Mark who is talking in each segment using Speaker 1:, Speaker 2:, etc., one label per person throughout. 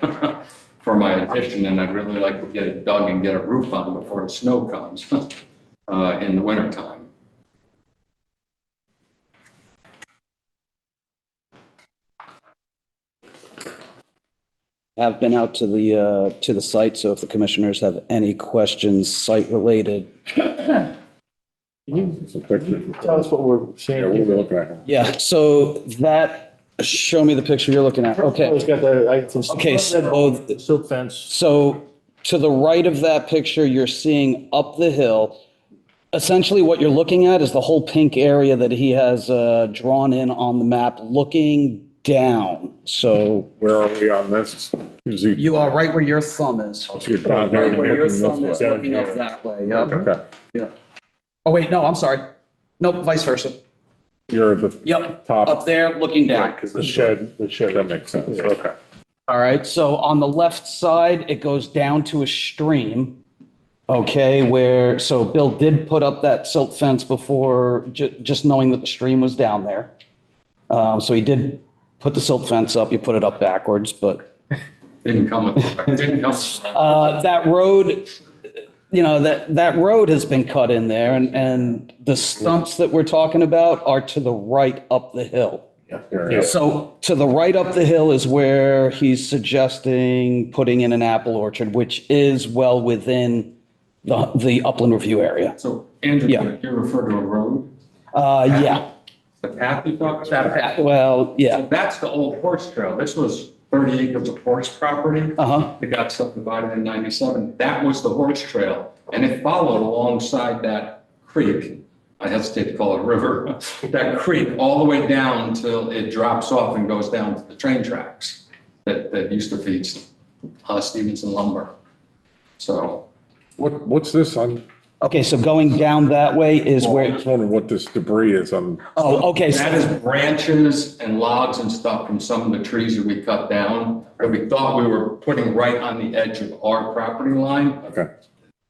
Speaker 1: competition, and I'd really like to get it dug and get a roof on it before the snow comes uh, in the wintertime.
Speaker 2: Have been out to the, uh, to the site, so if the commissioners have any questions site-related.
Speaker 3: Can you tell us what we're seeing? here?
Speaker 2: Yeah, so that, show me the picture you're looking at.
Speaker 3: Oh,
Speaker 2: Okay,
Speaker 3: It's got the, I got some.
Speaker 2: Okay, so-
Speaker 3: The Silk fence.
Speaker 2: so to the right of that picture, you're seeing up the hill. Essentially, what you're looking at is the whole pink area that he has uh, drawn in on the map, looking down. So
Speaker 4: Where are we on this? Is he-
Speaker 2: you are right where your thumb is.
Speaker 4: is he down there?
Speaker 2: Where your
Speaker 4: Looking
Speaker 2: thumb
Speaker 4: this
Speaker 2: is
Speaker 4: way?
Speaker 2: looking up that way, yep.
Speaker 4: Okay,
Speaker 2: Oh, wait, no, I'm sorry. Nope, vice versa.
Speaker 4: you're the.
Speaker 2: Yep,
Speaker 4: Top.
Speaker 2: up there, looking down.
Speaker 4: Because the shed, the shed. That makes sense, okay.
Speaker 2: All right, so on the left side, it goes down to a stream. Okay, where, so Bill did put up that silt fence before, ju- just knowing that the stream was down there. Um, so he did put the silt fence up, you put it up backwards, but,
Speaker 1: Didn't come with, didn't come. with-
Speaker 2: uh, that road, you know, that, that road has been cut in there and, and the stumps that we're talking about are to the right up the hill.
Speaker 4: There it is.
Speaker 2: So to the right up the hill is where he's suggesting putting in an apple orchard, which is well within the, the upland review area.
Speaker 1: So Andrew,
Speaker 2: Yeah.
Speaker 1: you refer to a road,
Speaker 2: Uh, yeah,
Speaker 1: the path you talked
Speaker 2: Uh,
Speaker 1: about?
Speaker 2: well, yeah,
Speaker 1: So That's the old horse trail. This was 30 acres of horse property.
Speaker 2: uh-huh,
Speaker 1: It got subdivided in 97. That was the horse trail, and it followed alongside that creek. I hesitate to call it a river, that creek, all the way down till it drops off and goes down to the train tracks that, that used to feed uh, Stevenson lumber. So
Speaker 4: What, what's this on?
Speaker 2: okay, so going down that way is
Speaker 4: Well, I
Speaker 2: where,
Speaker 4: just wondering what this debris is on.
Speaker 2: oh, okay,
Speaker 1: that
Speaker 2: so-
Speaker 1: is branches and logs and stuff from some of the trees that we cut down that we thought we were putting right on the edge of our property line.
Speaker 4: Okay,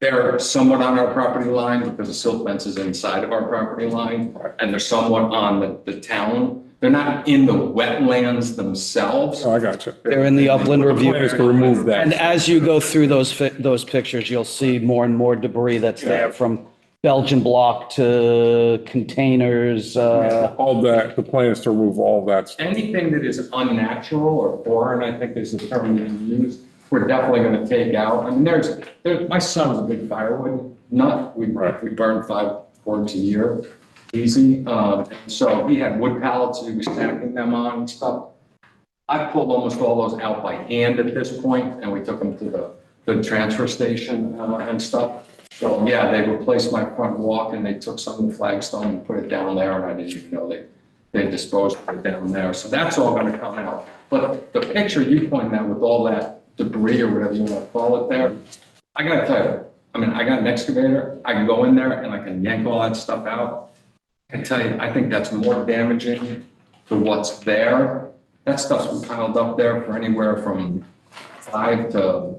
Speaker 1: They're somewhat on our property line because the silt fence is inside of our property line, and they're somewhat on the, the town. They're not in the wetlands themselves.
Speaker 4: oh, I got you.
Speaker 2: they're in the upland
Speaker 4: The plan
Speaker 2: review.
Speaker 4: is to remove
Speaker 2: And
Speaker 4: that.
Speaker 2: as you go through those, fi- those pictures, you'll see more and more debris that's there from Belgian block to containers, uh,
Speaker 4: All that, the plan is to remove all that stuff.
Speaker 1: Anything that is unnatural or foreign, I think is the term we use, we're definitely gonna take out. I mean, there's, there, my son's a big firewood nut. We,
Speaker 4: Right.
Speaker 1: we burn five boards a year, easy. Um, so he had wood pallets, he was stacking them on and stuff. I pulled almost all those out by hand at this point, and we took them to the, the transfer station uh, and stuff. So, yeah, they replaced my front walk and they took some of the flagstone and put it down there, and I didn't even know they, they disposed of it down there. So that's all gonna come out. But the picture you pointed out with all that debris or whatever you wanna call it there, I gotta tell you, I mean, I got an excavator, I can go in there and I can yank all that stuff out. I can tell you, I think that's more damaging to what's there. That stuff's been piled up there for anywhere from five to,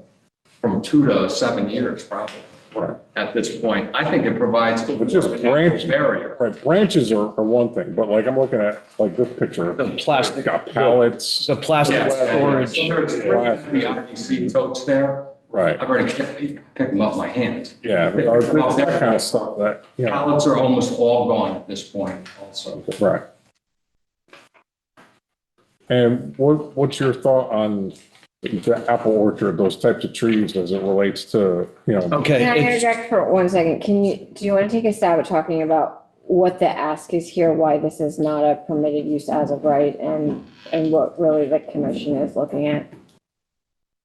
Speaker 1: from two to seven years probably
Speaker 4: Right.
Speaker 1: at this point. I think it provides a
Speaker 4: It's just branch-
Speaker 1: barrier.
Speaker 4: Right, branches are, are one thing, but like I'm looking at, like this picture,
Speaker 2: the
Speaker 4: it's
Speaker 2: plastic,
Speaker 4: got pallets,
Speaker 2: the plastic
Speaker 1: Yes,
Speaker 2: storage.
Speaker 1: So there's the IBC totes there.
Speaker 4: right,
Speaker 1: I've already picked them up my hands.
Speaker 4: yeah, there are- there's that kind of stuff that, you know,
Speaker 1: Pallets are almost all gone at this point also.
Speaker 4: right. And what, what's your thought on the apple orchard, those types of trees as it relates to, you know,
Speaker 2: Okay.
Speaker 5: Can I
Speaker 2: it's-
Speaker 5: interject for one second? Can you, do you want to take a stab at talking about what the ask is here, why this is not a permitted use as of right, and, and what really the commission is looking at?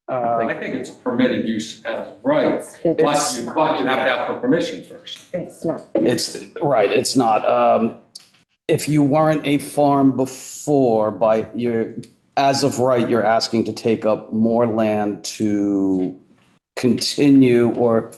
Speaker 2: uh,
Speaker 1: I think it's permitted use as right, but
Speaker 5: It's,
Speaker 1: you, but you have to ask for permission first.
Speaker 5: it's not,
Speaker 2: It's, right, it's not. Um, If you weren't a farm before, by your, as of right, you're asking to take up more land to continue or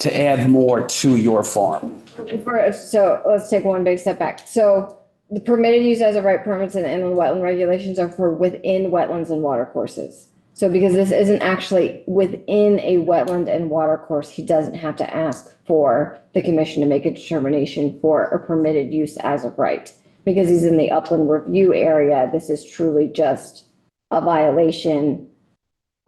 Speaker 2: to add more to your farm.
Speaker 5: for- so let's take one big step back. So the permitted use as of right permits and inland wetland regulations are for within wetlands and watercourses. So because this isn't actually within a wetland and watercourse, he doesn't have to ask for the commission to make a determination for a permitted use as of right. Because he's in the upland review area, this is truly just a violation